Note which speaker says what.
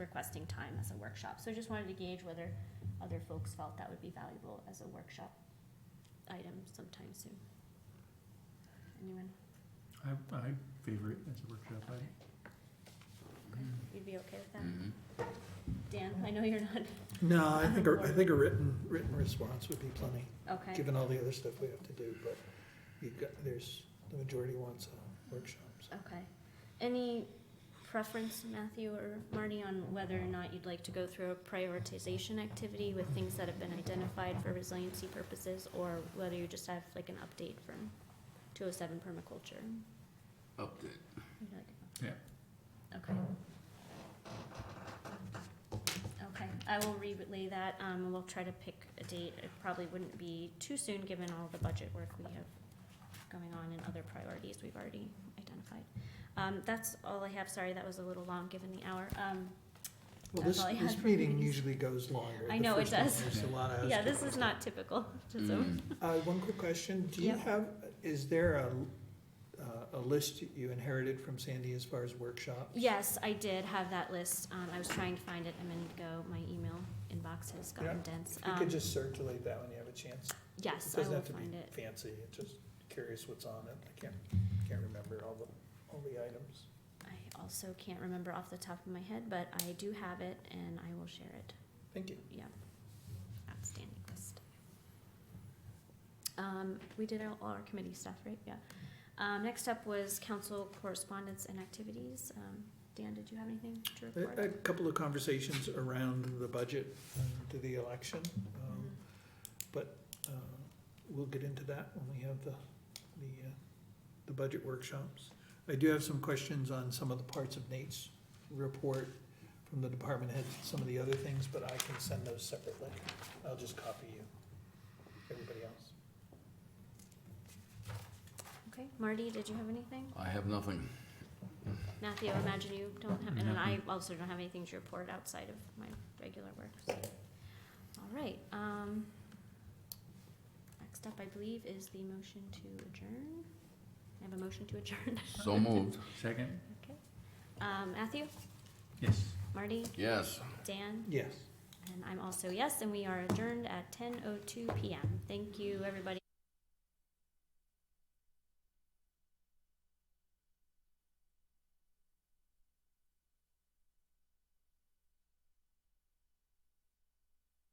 Speaker 1: requesting time as a workshop. So I just wanted to gauge whether other folks felt that would be valuable as a workshop item sometime soon. Anyone?
Speaker 2: I, I favor it as a workshop item.
Speaker 1: You'd be okay with that? Dan, I know you're not,
Speaker 3: No, I think, a- I think a written, written response would be plenty,
Speaker 1: okay,
Speaker 3: given all the other stuff we have to do, but you've got, there's, the majority wants a workshop, so.
Speaker 1: okay. Any preference, Matthew or Marty, on whether or not you'd like to go through a prioritization activity with things that have been identified for resiliency purposes, or whether you just have like an update from two oh seven permaculture?
Speaker 4: Update.
Speaker 1: You'd like an update?
Speaker 2: Yeah.
Speaker 1: Okay. Okay, I will relay that, um, and we'll try to pick a date, it probably wouldn't be too soon, given all the budget work we have going on and other priorities we've already identified. Um, that's all I have, sorry, that was a little long, given the hour, um,
Speaker 3: Well,
Speaker 1: That's
Speaker 3: this,
Speaker 1: all I
Speaker 3: this
Speaker 1: had.
Speaker 3: meeting usually goes longer.
Speaker 1: I
Speaker 3: The
Speaker 1: know it
Speaker 3: first one,
Speaker 1: does.
Speaker 3: There's a lot of.
Speaker 1: yeah, this is not typical, just so,
Speaker 4: Mm.
Speaker 3: Uh, one quick question, do you
Speaker 1: Yeah.
Speaker 3: have, is there a, uh, a list you inherited from Sandy as far as workshops?
Speaker 1: yes, I did have that list, um, I was trying to find it a minute ago, my email inbox has gotten
Speaker 3: Yeah,
Speaker 1: dense,
Speaker 3: If you
Speaker 1: um,
Speaker 3: could just circulate that when you have a chance.
Speaker 1: yes,
Speaker 3: It
Speaker 1: I
Speaker 3: doesn't
Speaker 1: will
Speaker 3: have to be
Speaker 1: find it,
Speaker 3: fancy, it's just curious what's on it, I can't, can't remember all the, all the items.
Speaker 1: I also can't remember off the top of my head, but I do have it, and I will share it,
Speaker 3: Thank you.
Speaker 1: yeah, outstanding list. Um, we did all all our committee stuff, right, yeah, um, next up was council correspondence and activities, um, Dan, did you have anything to report?
Speaker 3: A, a couple of conversations around the budget um, to the election, um,
Speaker 1: Mhm.
Speaker 3: uh, we'll get into that when we have the, the, uh, the budget workshops. I do have some questions on some of the parts of Nate's report from the department head, some of the other things, but I can send those separately. I'll just copy you, everybody else.
Speaker 1: Okay, Marty, did you have anything?
Speaker 4: I have nothing.
Speaker 1: Matthew, I imagine you don't have, and I
Speaker 2: Nothing.
Speaker 1: also don't have anything to report outside of my regular work, so. All right, um, next up, I believe, is the motion to adjourn. I have a motion to adjourn.
Speaker 4: So moved.
Speaker 2: Second?
Speaker 1: Um, Matthew,
Speaker 2: Yes.
Speaker 1: Marty,
Speaker 4: Yes.
Speaker 1: Dan,
Speaker 3: Yes.
Speaker 1: and I'm also yes, and we are adjourned at ten oh two PM. Thank you, everybody.